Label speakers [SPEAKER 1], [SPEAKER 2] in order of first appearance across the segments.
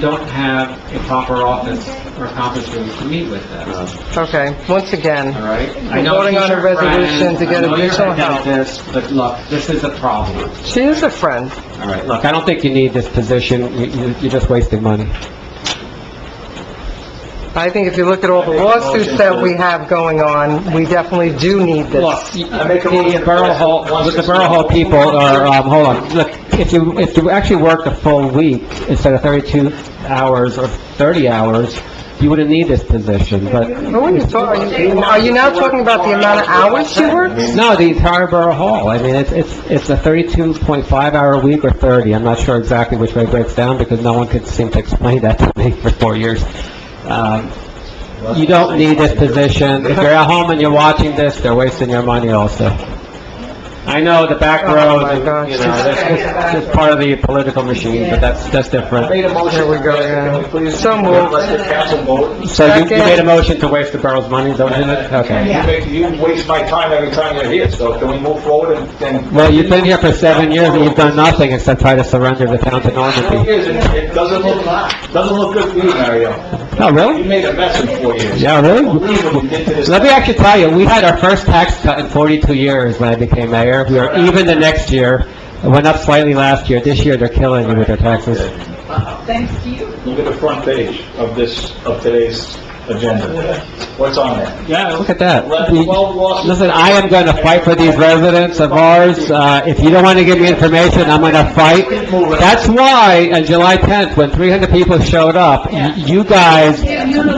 [SPEAKER 1] don't have a proper office or conference room to meet with them,
[SPEAKER 2] Okay, once
[SPEAKER 1] all
[SPEAKER 2] again,
[SPEAKER 1] right?
[SPEAKER 2] We're voting on a resolution to get
[SPEAKER 1] a
[SPEAKER 2] additional help.
[SPEAKER 1] this, but look, this is a problem,
[SPEAKER 2] she is a friend.
[SPEAKER 1] all right? Look, I don't think you need this position, You- you- you're just wasting money.
[SPEAKER 2] I think if you look at all the lawsuits that we have going on, we definitely do need
[SPEAKER 1] Look,
[SPEAKER 2] this.
[SPEAKER 1] the Borough Hall, the Borough Hall people are, um, hold on, look, if you, if you actually worked a full week instead of 32 hours or 30 hours, you wouldn't need this position, but,
[SPEAKER 2] Who are you talking, are you now talking about the amount of hours she works?
[SPEAKER 1] no, the entire Borough Hall, I mean, it's, it's, it's a 32.5 hour week or 30, I'm not sure exactly which way it breaks down, because no one could seem to explain that to me for four years. Um, You don't need this position, if you're at home and you're watching this, they're wasting your money also. I know, the back
[SPEAKER 2] Oh,
[SPEAKER 1] row,
[SPEAKER 2] my gosh.
[SPEAKER 1] you know, that's just, just part of the political machine, but that's, that's different.
[SPEAKER 3] Made a motion.
[SPEAKER 2] There we go, yeah.
[SPEAKER 3] Can we please-
[SPEAKER 2] So moved.
[SPEAKER 3] Let the council vote.
[SPEAKER 1] So you, you made a motion to waste the borough's money, don't you? Okay.
[SPEAKER 3] You make- You waste my time every time you're here, so can we move forward and then?
[SPEAKER 1] Well, you've been here for seven years and you've done nothing except try to surrender the town to
[SPEAKER 3] Four
[SPEAKER 1] Normandy.
[SPEAKER 3] years, and it doesn't look, doesn't look good for you, Mario.
[SPEAKER 1] Oh,
[SPEAKER 3] You
[SPEAKER 1] really?
[SPEAKER 3] made a mess in four years.
[SPEAKER 1] Yeah, really?
[SPEAKER 3] Believe what you did to this-
[SPEAKER 1] Let me actually tell you, we had our first tax cut in 42 years when I became mayor. We were even the next year. It went up slightly last year. This year, they're killing you with their taxes.
[SPEAKER 4] Thanks to you.
[SPEAKER 3] Look at the front page of this, of today's agenda. What's on there?
[SPEAKER 1] Yeah, look at that.
[SPEAKER 3] Eleven, twelve lawsuits.
[SPEAKER 1] Listen, I am going to fight for these residents of ours. Uh, If you don't want to give me information, I'm going to fight. That's why on July 10th, when 300 people showed up, y- you guys,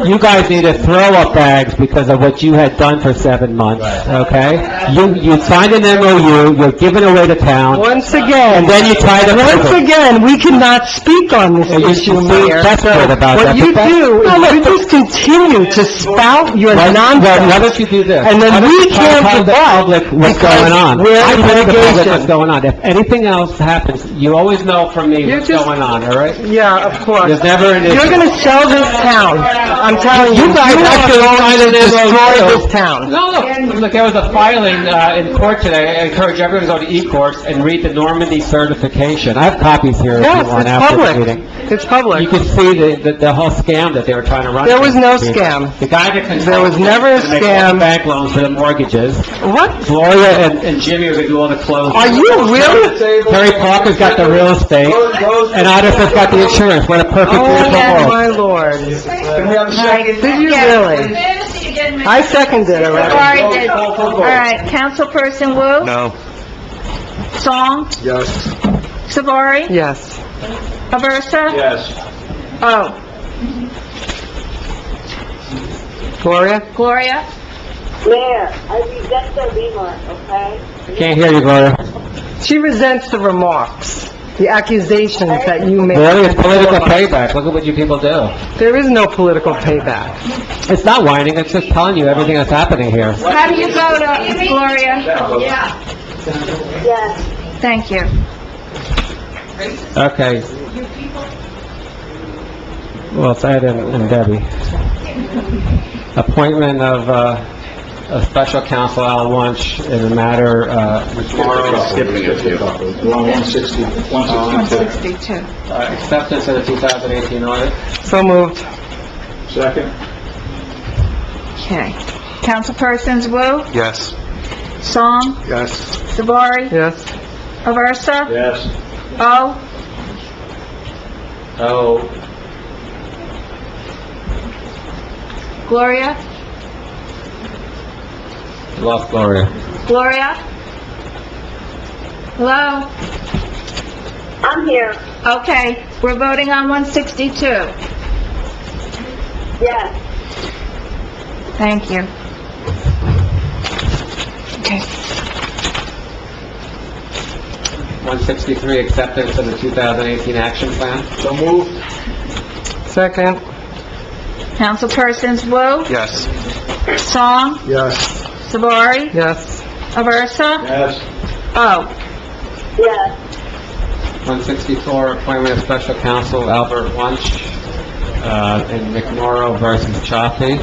[SPEAKER 1] you guys need to throw up bags because of what you had done for seven months, okay? You, you signed an MOU, you're giving away the town,
[SPEAKER 2] Once again,
[SPEAKER 1] and then you try to...
[SPEAKER 2] once again, we cannot speak on this
[SPEAKER 1] You
[SPEAKER 2] issue,
[SPEAKER 1] should be
[SPEAKER 2] Mayor.
[SPEAKER 1] desperate about
[SPEAKER 2] What
[SPEAKER 1] that.
[SPEAKER 2] you
[SPEAKER 1] but that-
[SPEAKER 2] do, is you just continue to spout your
[SPEAKER 1] Why- Why why
[SPEAKER 2] nonsense.
[SPEAKER 1] don't you do this?
[SPEAKER 2] And then
[SPEAKER 1] Why don't
[SPEAKER 2] we
[SPEAKER 1] you try to tell
[SPEAKER 2] can't
[SPEAKER 1] the
[SPEAKER 2] provide
[SPEAKER 1] public what's
[SPEAKER 2] because
[SPEAKER 1] going on.
[SPEAKER 2] we're
[SPEAKER 1] I
[SPEAKER 2] in
[SPEAKER 1] tell the public
[SPEAKER 2] litigation.
[SPEAKER 1] what's going on. If anything else happens, you always know from me
[SPEAKER 2] You're
[SPEAKER 1] what's
[SPEAKER 2] just-
[SPEAKER 1] going on, all right?
[SPEAKER 2] Yeah, of course.
[SPEAKER 1] There's never an
[SPEAKER 2] You're
[SPEAKER 1] issue.
[SPEAKER 2] gonna sell this town. I'm telling you.
[SPEAKER 1] You guys
[SPEAKER 2] are
[SPEAKER 1] actually
[SPEAKER 2] going
[SPEAKER 1] signed
[SPEAKER 2] to
[SPEAKER 1] an
[SPEAKER 2] Destroy
[SPEAKER 1] MOU.
[SPEAKER 2] this town.
[SPEAKER 1] No, look, look, there was a filing uh, in court today. I encourage everyone to go to e-courts and read the Normandy certification. I have copies here if you
[SPEAKER 2] Yes,
[SPEAKER 1] want
[SPEAKER 2] it's
[SPEAKER 1] after the
[SPEAKER 2] public.
[SPEAKER 1] meeting.
[SPEAKER 2] It's
[SPEAKER 1] You
[SPEAKER 2] public.
[SPEAKER 1] can see the, the- the whole scam that they were trying to run.
[SPEAKER 2] There was no
[SPEAKER 1] The-
[SPEAKER 2] scam.
[SPEAKER 1] The guy that controlled...
[SPEAKER 2] There was never a
[SPEAKER 1] to make all the
[SPEAKER 2] scam.
[SPEAKER 1] Bank loans for the mortgages.
[SPEAKER 2] What?
[SPEAKER 1] Gloria and and Jimmy are going to do all the closing.
[SPEAKER 2] Are you really?
[SPEAKER 1] Terry Parker's got the real estate, and Otis's got the insurance, what a perfect
[SPEAKER 2] Oh,
[SPEAKER 1] world.
[SPEAKER 2] my lord.
[SPEAKER 3] Can we have a second?
[SPEAKER 2] Did you really? I second it already.
[SPEAKER 5] Sorry, did-
[SPEAKER 3] Roll call, roll
[SPEAKER 5] all
[SPEAKER 3] call.
[SPEAKER 5] right, Councilperson Wu? No. Song?
[SPEAKER 3] Yes.
[SPEAKER 5] Savari?
[SPEAKER 2] Yes.
[SPEAKER 5] Aversa?
[SPEAKER 3] Yes.
[SPEAKER 5] Oh,
[SPEAKER 2] Gloria?
[SPEAKER 5] Gloria?
[SPEAKER 6] Mayor, I reject the remark, okay?
[SPEAKER 1] Can't hear you, Gloria.
[SPEAKER 2] She resents the remarks, the accusations that you
[SPEAKER 1] Gloria, it's
[SPEAKER 2] make.
[SPEAKER 1] political payback, look at what you people do.
[SPEAKER 2] There is no political payback.
[SPEAKER 1] It's not whining, it's just telling you everything that's happening here.
[SPEAKER 5] How do you vote, uh, Gloria?
[SPEAKER 6] Yes.
[SPEAKER 5] Thank you.
[SPEAKER 1] Okay. Well, it's Ed and and Debbie. Appointment of, uh, of special counsel Al Wunsch in the matter, uh,
[SPEAKER 3] We're on one sixty, one sixty-two.
[SPEAKER 5] 62.
[SPEAKER 1] uh, acceptance of the 2018 audit.
[SPEAKER 2] So moved.
[SPEAKER 3] Second?
[SPEAKER 5] Okay. Councilpersons Wu?
[SPEAKER 3] Yes.
[SPEAKER 5] Song?
[SPEAKER 3] Yes.
[SPEAKER 5] Savari?
[SPEAKER 2] Yes.
[SPEAKER 5] Aversa?
[SPEAKER 3] Yes.
[SPEAKER 5] Oh,
[SPEAKER 1] Oh,
[SPEAKER 5] Gloria?
[SPEAKER 1] lost Gloria.
[SPEAKER 5] Gloria? Hello?
[SPEAKER 6] I'm here,
[SPEAKER 5] Okay, we're voting on 162.
[SPEAKER 6] yes.
[SPEAKER 5] Thank you. Okay.
[SPEAKER 1] 163, acceptance of the 2018 action plan.
[SPEAKER 3] So move?
[SPEAKER 2] Second?
[SPEAKER 5] Councilpersons Wu?
[SPEAKER 3] Yes.
[SPEAKER 5] Song?
[SPEAKER 3] Yes.
[SPEAKER 5] Savari?
[SPEAKER 2] Yes.
[SPEAKER 5] Aversa?
[SPEAKER 3] Yes.
[SPEAKER 5] Oh,
[SPEAKER 6] Yes.
[SPEAKER 1] 164, appointment of special counsel Albert Wunsch uh, in McMorro versus Chaffee.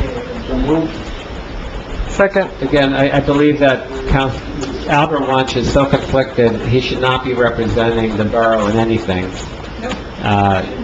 [SPEAKER 3] So move?
[SPEAKER 2] Second?
[SPEAKER 1] Again, I I believe that Couns- Albert Wunsch is so conflicted, he should not be representing the borough in anything. Uh,